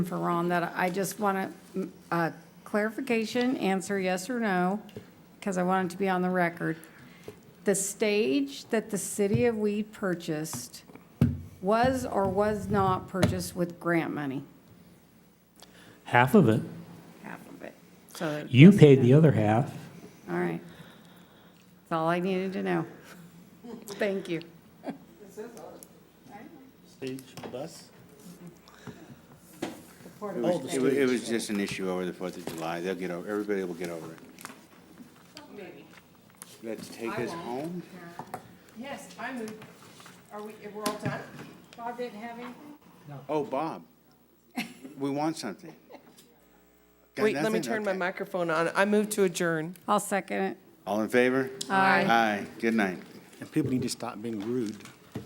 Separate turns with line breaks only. for Ron that I just want a clarification, answer yes or no, because I want it to be on the record. The stage that the city of Weed purchased was or was not purchased with grant money?
Half of it.
Half of it. So,
You paid the other half.
all right. That's all I needed to know. Thank you.
Stage bus?
It was, it was- it was just an issue over the Fourth of July. They'll get over, everybody will get over it. Let's take us home.
Yes, I move. Are we, we're all done?
Bob didn't have anything?
Oh, Bob, we want something. Got
Wait, let me
nothing?
turn my
Okay.
microphone on. I move to adjourn.
I'll second it.
All in favor?
Aye.
Aye, good night.
And people need to stop being rude.